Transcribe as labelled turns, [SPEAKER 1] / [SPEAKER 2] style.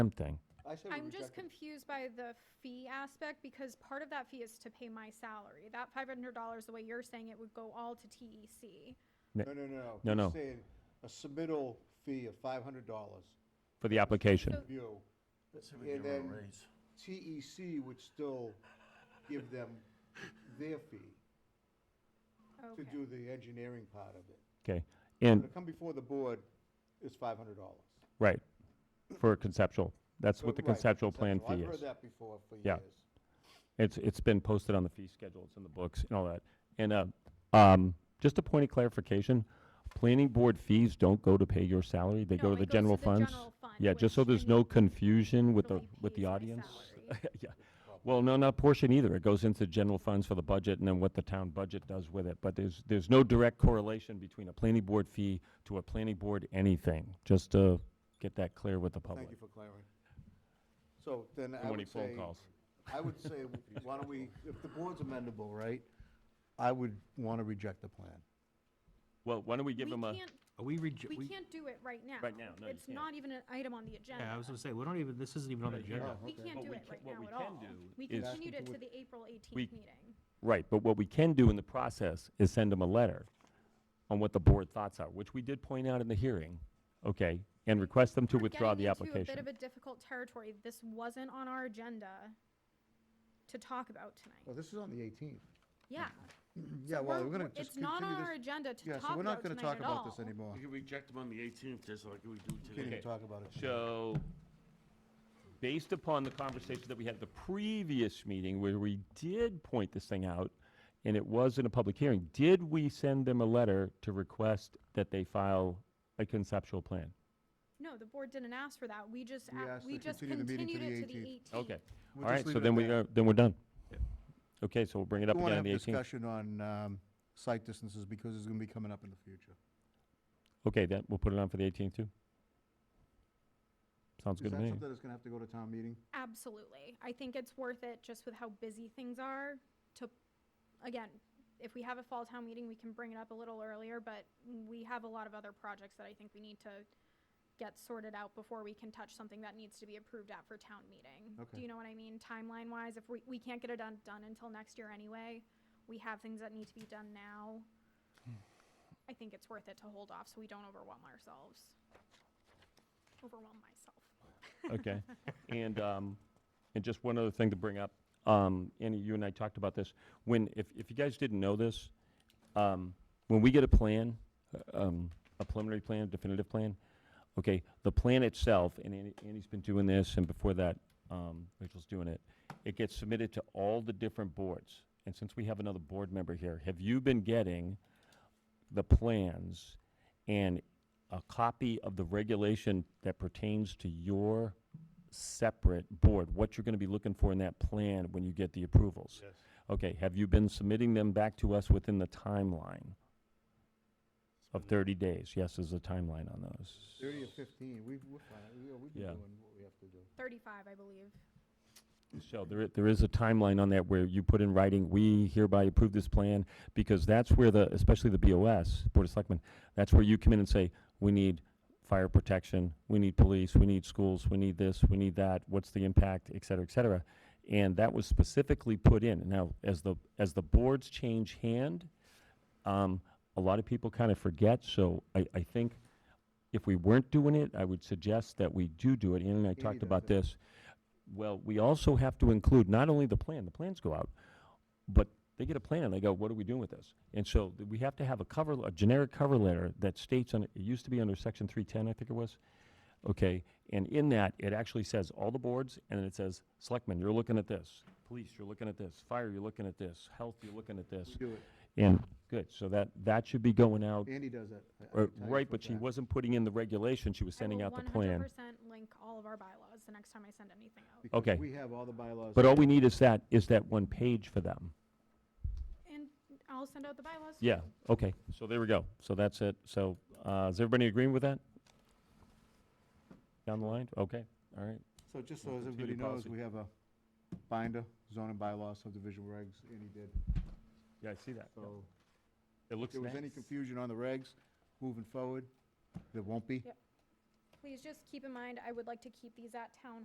[SPEAKER 1] Something.
[SPEAKER 2] I said we
[SPEAKER 3] I'm just
[SPEAKER 2] reject it.
[SPEAKER 3] confused by the fee aspect because part of that fee is to pay my salary. That five hundred dollars, the way you're saying it, would go all to E TEC.
[SPEAKER 2] No, no, no,
[SPEAKER 1] No,
[SPEAKER 2] no.
[SPEAKER 1] no.
[SPEAKER 2] He's saying a submittal fee of five hundred dollars,
[SPEAKER 1] For the application.
[SPEAKER 3] So-
[SPEAKER 2] view.
[SPEAKER 4] See if we
[SPEAKER 2] And
[SPEAKER 4] give him
[SPEAKER 2] then
[SPEAKER 4] a raise.
[SPEAKER 2] TEC would still give them their fee to
[SPEAKER 3] Okay.
[SPEAKER 2] do the engineering part of it.
[SPEAKER 1] Okay.
[SPEAKER 2] But
[SPEAKER 1] And,
[SPEAKER 2] to come before the board is five hundred dollars.
[SPEAKER 1] right, for a conceptual. That's what the conceptual plan fee
[SPEAKER 2] I've heard
[SPEAKER 1] is.
[SPEAKER 2] that before for
[SPEAKER 1] Yeah.
[SPEAKER 2] years.
[SPEAKER 1] It's, it's been posted on the fee schedule, it's in the books and all that. And, uh, um, just a point of clarification, planning board fees don't go to pay your salary, they
[SPEAKER 3] No,
[SPEAKER 1] go to
[SPEAKER 3] it
[SPEAKER 1] the
[SPEAKER 3] goes
[SPEAKER 1] general
[SPEAKER 3] to the
[SPEAKER 1] funds.
[SPEAKER 3] general fund,
[SPEAKER 1] Yeah, just so
[SPEAKER 3] which
[SPEAKER 1] there's
[SPEAKER 3] then
[SPEAKER 1] no confusion with the,
[SPEAKER 3] only
[SPEAKER 1] with
[SPEAKER 3] pays
[SPEAKER 1] the
[SPEAKER 3] my
[SPEAKER 1] audience.
[SPEAKER 3] salary.
[SPEAKER 1] Yeah. Well, no, not portion either. It goes into general funds for the budget and then what the town budget does with it. But there's, there's no direct correlation between a planning board fee to a planning board anything, just to get that clear with the public.
[SPEAKER 2] Thank you for clarifying. So then I
[SPEAKER 1] How many
[SPEAKER 2] would
[SPEAKER 1] phone
[SPEAKER 2] say,
[SPEAKER 1] calls?
[SPEAKER 2] I would say, why don't we, if the board's amendable, right? I would want to reject the plan.
[SPEAKER 1] Well, why don't we
[SPEAKER 3] We
[SPEAKER 1] give them a,
[SPEAKER 3] can't,
[SPEAKER 5] Are we reje-
[SPEAKER 3] we can't do it right now.
[SPEAKER 1] Right now, no, you
[SPEAKER 3] It's
[SPEAKER 1] can't.
[SPEAKER 3] not even an item on the agenda.
[SPEAKER 5] Yeah, I was gonna say, we don't even, this isn't even on the agenda.
[SPEAKER 3] We can't
[SPEAKER 1] What
[SPEAKER 3] do
[SPEAKER 1] we
[SPEAKER 3] it
[SPEAKER 1] can-
[SPEAKER 3] right
[SPEAKER 1] what
[SPEAKER 3] now
[SPEAKER 1] we
[SPEAKER 3] at
[SPEAKER 1] can
[SPEAKER 3] all.
[SPEAKER 1] do
[SPEAKER 3] We
[SPEAKER 1] is-
[SPEAKER 3] continued it to the April
[SPEAKER 1] We-
[SPEAKER 3] eighteenth meeting.
[SPEAKER 1] right, but what we can do in the process is send them a letter on what the board thoughts are, which we did point out in the hearing, okay? And request them to
[SPEAKER 3] We're
[SPEAKER 1] withdraw
[SPEAKER 3] getting
[SPEAKER 1] the
[SPEAKER 3] into
[SPEAKER 1] application.
[SPEAKER 3] A bit of a difficult territory. This wasn't on our agenda to talk about tonight.
[SPEAKER 2] Well, this is on the eighteenth.
[SPEAKER 3] Yeah.
[SPEAKER 2] Yeah, well,
[SPEAKER 3] We're-
[SPEAKER 2] we're going
[SPEAKER 3] we're-
[SPEAKER 2] to just
[SPEAKER 3] It's not on
[SPEAKER 2] continue
[SPEAKER 3] our
[SPEAKER 2] this.
[SPEAKER 3] agenda to
[SPEAKER 2] Yeah,
[SPEAKER 3] talk
[SPEAKER 2] so we're not
[SPEAKER 3] about
[SPEAKER 2] going to
[SPEAKER 3] tonight
[SPEAKER 2] talk
[SPEAKER 3] at
[SPEAKER 2] about this
[SPEAKER 3] all.
[SPEAKER 2] anymore.
[SPEAKER 4] We can reject him on the 18th, just like we do
[SPEAKER 2] Can't
[SPEAKER 4] today.
[SPEAKER 2] even talk about it. tonight.
[SPEAKER 1] So, based upon the conversation that we had at the previous meeting where we did point this thing out, and it was in a public hearing, did we send them a letter to request that they file a conceptual plan?
[SPEAKER 3] No, the board didn't ask for that. We just,
[SPEAKER 2] We
[SPEAKER 3] ac-
[SPEAKER 2] asked
[SPEAKER 3] we
[SPEAKER 2] to
[SPEAKER 3] just
[SPEAKER 2] continue the meeting
[SPEAKER 3] continued
[SPEAKER 2] to
[SPEAKER 3] it to
[SPEAKER 2] the
[SPEAKER 3] the 18th.
[SPEAKER 1] Okay, all
[SPEAKER 2] We'll
[SPEAKER 1] right,
[SPEAKER 2] just leave
[SPEAKER 1] so
[SPEAKER 2] it
[SPEAKER 1] then
[SPEAKER 2] at
[SPEAKER 1] we,
[SPEAKER 2] that.
[SPEAKER 1] are then we're done. Okay, so we'll bring it up
[SPEAKER 2] We want
[SPEAKER 1] again
[SPEAKER 2] to
[SPEAKER 1] on
[SPEAKER 2] have
[SPEAKER 1] the 18th.
[SPEAKER 2] discussion on um, site distances because it's going to be coming up in the future.
[SPEAKER 1] Okay, then, we'll put it on for the 18th too. Sounds
[SPEAKER 2] Is
[SPEAKER 1] good
[SPEAKER 2] that
[SPEAKER 1] to me.
[SPEAKER 2] something that's going to have to go to town meeting?
[SPEAKER 3] Absolutely. I think it's worth it just with how busy things are to, again, if we have a fall town meeting, we can bring it up a little earlier, but we have a lot of other projects that I think we need to get sorted out before we can touch something that needs to be approved at for town meeting.
[SPEAKER 2] Okay.
[SPEAKER 3] Do you know what I mean? Timeline wise, if we, we can't get it done, done until next year anyway, we have things that need to be done now. I think it's worth it to hold off so we don't overwhelm ourselves. Overwhelm myself.
[SPEAKER 1] Okay. And, um, and just one other thing to bring up, um, Annie, you and I talked about this. When, if, if you guys didn't know this, um, when we get a plan, uh, um, a preliminary plan, definitive plan, okay, the plan itself, and Annie, Annie's been doing this, and before that, um, Rachel's doing it, it gets submitted to all the different boards. And since we have another board member here, have you been getting the plans and a copy of the regulation that pertains to your separate board, what you're gonna be looking for in that plan when you get the approvals?
[SPEAKER 4] Yes.
[SPEAKER 1] Okay, have you been submitting them back to us within the timeline of thirty days? Yes, there's a timeline on those.
[SPEAKER 2] 30 or 15, we, we're fine, we, we've been
[SPEAKER 1] Yeah.
[SPEAKER 2] doing what we have to do.
[SPEAKER 3] Thirty-five, I believe.
[SPEAKER 1] So there, i- there is a timeline on that where you put in writing, we hereby approve this plan, because that's where the, especially the BOS, Board of Selectmen, that's where you come in and say, we need fire protection, we need police, we need schools, we need this, we need that, what's the impact, et cetera, et cetera. And that was specifically put in. Now, as the, as the boards change hand, um, a lot of people kind of forget, so I, I think if we weren't doing it, I would suggest that we do do it. Ann and I talked
[SPEAKER 2] does
[SPEAKER 1] about
[SPEAKER 2] it.
[SPEAKER 1] this. Well, we also have to include not only the plan, the plans go out, but they get a plan and they go, what are we doing with this? And so th- we have to have a cover, a generic cover letter that states on, it used to be under section three ten, I think it was. Okay, and in that, it actually says all the boards, and then it says, selectmen, you're looking at this, police, you're looking at this, fire, you're looking at this, health, you're looking at this.
[SPEAKER 2] We do it,
[SPEAKER 1] And, good, so that, that should be going out,
[SPEAKER 2] Andy does that. I- I
[SPEAKER 1] or-
[SPEAKER 2] can tell you
[SPEAKER 1] right,
[SPEAKER 2] for a
[SPEAKER 1] but she
[SPEAKER 2] fact.
[SPEAKER 1] wasn't putting in the regulation, she was sending out the
[SPEAKER 3] I will
[SPEAKER 1] plan.
[SPEAKER 3] 100% link all of our bylaws the next time I send anything out.
[SPEAKER 2] Because
[SPEAKER 1] Okay.
[SPEAKER 2] We have all the bylaws.
[SPEAKER 1] But all we need is that, is that one page for them.
[SPEAKER 3] And I'll send out the bylaws.
[SPEAKER 1] Yeah, okay, so there we go, so that's it, so, uh, is everybody agreeing with that? Down the line, okay, all right,
[SPEAKER 2] So just so
[SPEAKER 1] We'll
[SPEAKER 2] as
[SPEAKER 1] continue
[SPEAKER 2] everybody knows,
[SPEAKER 1] policy.
[SPEAKER 2] we have a binder, zoning bylaws, subdivision regs, Andy did.
[SPEAKER 1] yeah, I see that, Yeah.
[SPEAKER 2] So
[SPEAKER 1] it
[SPEAKER 2] if
[SPEAKER 1] looks
[SPEAKER 2] there was
[SPEAKER 1] nice.
[SPEAKER 2] any confusion on the regs, moving forward, there won't be.
[SPEAKER 3] Yep. Please just keep in mind, I would like to keep these at town